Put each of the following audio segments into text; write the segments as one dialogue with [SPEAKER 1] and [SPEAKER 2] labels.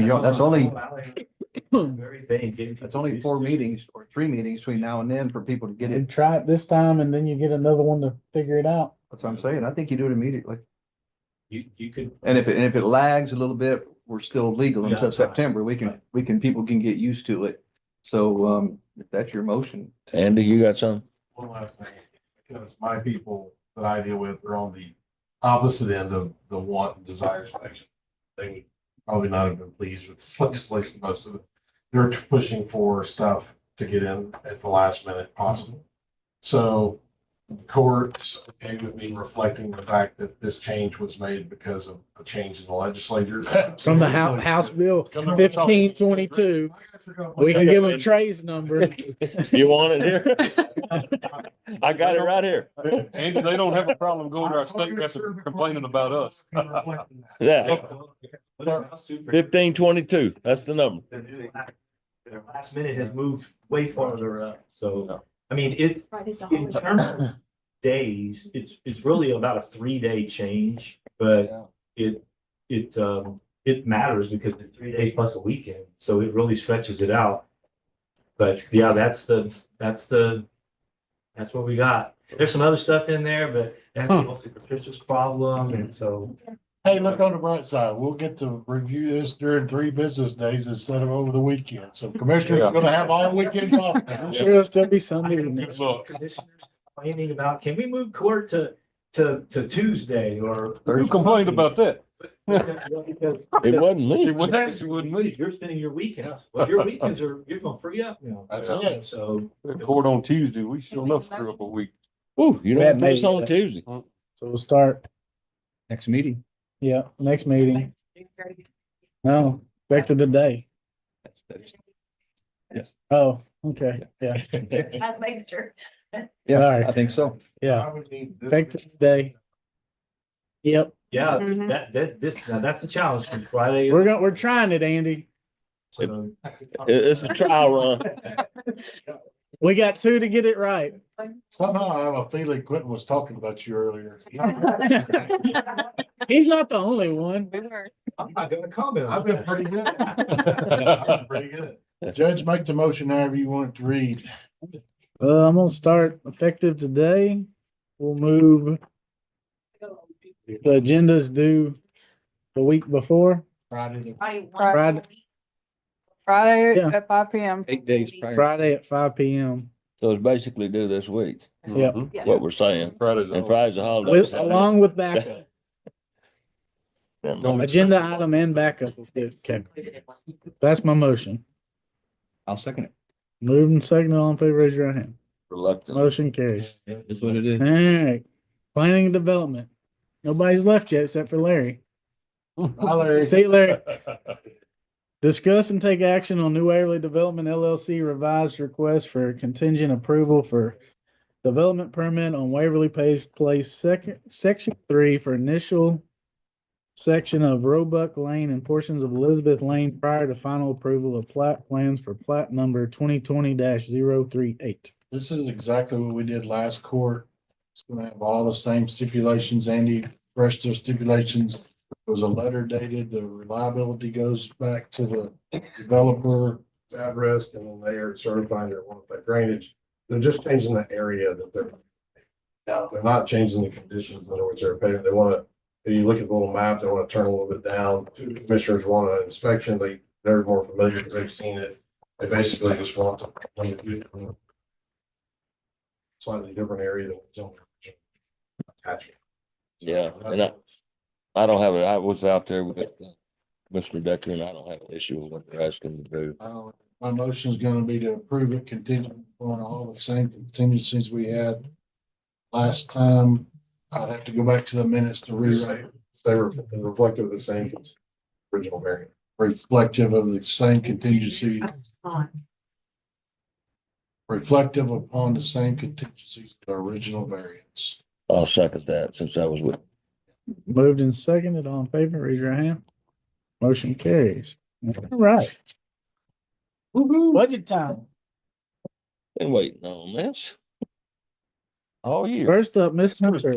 [SPEAKER 1] You know, that's only,
[SPEAKER 2] Very vague.
[SPEAKER 1] that's only four meetings or three meetings between now and then for people to get it.
[SPEAKER 3] And try it this time and then you get another one to figure it out.
[SPEAKER 1] That's what I'm saying. I think you do it immediately.
[SPEAKER 2] You, you could,
[SPEAKER 1] And if, it and if it lags a little bit, we're still legal
[SPEAKER 2] Yeah,
[SPEAKER 1] until
[SPEAKER 2] that's right.
[SPEAKER 1] September. We can,
[SPEAKER 2] Right.
[SPEAKER 1] we can, people can get used to it. So, um, if that's your motion.
[SPEAKER 4] Andy, you got some?
[SPEAKER 5] one last thing, because my people that I deal with are on the opposite end of the want and desire spectrum. They would probably not have been pleased with this legislation most of it. They're pushing for stuff to get in at the last minute possible. So courts okay with me reflecting the fact that this change was made because of a change in the legislature.
[SPEAKER 3] From the House, House Bill fifteen twenty-two, we can give them Trey's number.
[SPEAKER 4] You want it here? I got it right here.
[SPEAKER 6] And they don't have a problem going to our state reps complaining about us.
[SPEAKER 4] Yeah, fifteen twenty-two, that's the number.
[SPEAKER 2] they're doing that. Their last minute has moved way farther up, so, I mean, it's,
[SPEAKER 7] Right, it's a
[SPEAKER 2] in
[SPEAKER 7] holiday.
[SPEAKER 2] terms of days, it's, it's really about a three-day change, but it, it, um, it matters because it's three days plus a weekend, so it really stretches it out. But yeah, that's the, that's the, that's what we got. There's some other stuff in there, but that's
[SPEAKER 3] Huh.
[SPEAKER 2] a superstitious problem, and so.
[SPEAKER 5] Hey, look on the bright side. We'll get to review this during three business days instead of over the weekend. So commissioners are gonna have all weekend off now.
[SPEAKER 3] I'm sure it'll still be
[SPEAKER 2] I
[SPEAKER 3] Sunday.
[SPEAKER 2] don't
[SPEAKER 3] tomorrow.
[SPEAKER 2] think some Commissioners complaining about, can we move court to, to, to Tuesday or?
[SPEAKER 6] Who complained about that?
[SPEAKER 2] Because
[SPEAKER 4] It wasn't
[SPEAKER 6] It
[SPEAKER 4] me.
[SPEAKER 6] was actually wouldn't leave.
[SPEAKER 2] You're spending your weekends, well, your weekends are, you're gonna free up, you know.
[SPEAKER 5] That's it.
[SPEAKER 2] So.
[SPEAKER 6] Court on Tuesday, we sure enough screw up a week. uh,
[SPEAKER 4] Ooh, you
[SPEAKER 3] That
[SPEAKER 4] don't put us
[SPEAKER 3] may-
[SPEAKER 4] on Tuesday.
[SPEAKER 3] So we'll start,
[SPEAKER 1] Next meeting.
[SPEAKER 3] yeah, next meeting. No, back to the day.
[SPEAKER 4] Yes.
[SPEAKER 3] Oh, okay, yeah,
[SPEAKER 7] As manager.
[SPEAKER 3] Sorry.
[SPEAKER 1] I think so.
[SPEAKER 3] yeah.
[SPEAKER 5] I would need this-
[SPEAKER 3] Back to the day. Yep,
[SPEAKER 2] Yeah,
[SPEAKER 7] Mhm.
[SPEAKER 2] that, that, this, now that's a challenge, 'cause Friday.
[SPEAKER 3] we're going, we're trying it, Andy.
[SPEAKER 2] so-
[SPEAKER 4] It- it's a trial run.
[SPEAKER 3] We got two to get it right.
[SPEAKER 5] Somehow I have a feeling Quentin was talking about you earlier.
[SPEAKER 3] He's not the only one.
[SPEAKER 2] I'm not gonna comment
[SPEAKER 5] I've
[SPEAKER 2] on
[SPEAKER 5] been
[SPEAKER 2] that.
[SPEAKER 5] pretty good. I've been Pretty good. Judge, make the motion however you want it to read.
[SPEAKER 3] Uh, I'm gonna start effective today. We'll move, the agendas due the week before,
[SPEAKER 5] Friday.
[SPEAKER 7] I want-
[SPEAKER 3] Friday.
[SPEAKER 8] Friday
[SPEAKER 3] Yeah.
[SPEAKER 8] at five P M.
[SPEAKER 1] Eight days prior.
[SPEAKER 3] Friday at five P M.
[SPEAKER 4] So it's basically due this week,
[SPEAKER 3] Yep.
[SPEAKER 6] Mhm.
[SPEAKER 7] Yeah.
[SPEAKER 4] what we're saying.
[SPEAKER 6] Friday's.
[SPEAKER 4] And Friday's a holiday.
[SPEAKER 3] With, along with backup,
[SPEAKER 4] Don't-
[SPEAKER 3] agenda item and backup is good. Okay, that's my motion.
[SPEAKER 1] I'll second it.
[SPEAKER 3] Moved and seconded, all in favor, raise your right hand.
[SPEAKER 4] Reluctant.
[SPEAKER 3] Motion carries.
[SPEAKER 1] That's what it is.
[SPEAKER 3] All right, planning and development. Nobody's left yet except for Larry.
[SPEAKER 5] Hi, Larry.
[SPEAKER 3] See you, Larry. Discuss and take action on New Waverly Development LLC revised request for contingent approval for development permit on Waverly Place, Place Second, Section Three for initial section of Roebuck Lane and portions of Elizabeth Lane prior to final approval of plat plans for plat number twenty twenty 38
[SPEAKER 5] This is exactly what we did last court. It's gonna have all the same stipulations, Andy, rest of the stipulations. There was a letter dated, the reliability goes back to the developer. Address and then they are certifying their one by drainage. They're just changing the area that they're. Now, they're not changing the conditions under which they're paving. They wanna, if you look at the little map, they wanna turn a little bit down. Commissioners want an inspection. They, they're more familiar because they've seen it. They basically just want to slightly different area than it's on. Gotcha.
[SPEAKER 4] Yeah, and I, I don't have it. I was out there with uh, Mr. Decker and I don't have an issue with what they're asking to do.
[SPEAKER 5] Uh, My motion is gonna be to approve it contingent on all the same contingencies we had last time. I'd have to go back to the minutes to rewrite. They were reflective of the same original variant. Reflective of the same contingency, reflective upon the same contingencies, the original variance.
[SPEAKER 4] I'll second that since I was with
[SPEAKER 3] Moved and seconded, all in favor, raise your hand. Motion carries. All right. Budget time.
[SPEAKER 4] Been waiting on this. All year,
[SPEAKER 3] First up, Ms. Hunter.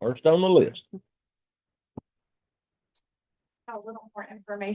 [SPEAKER 4] first on the list.
[SPEAKER 7] a little more information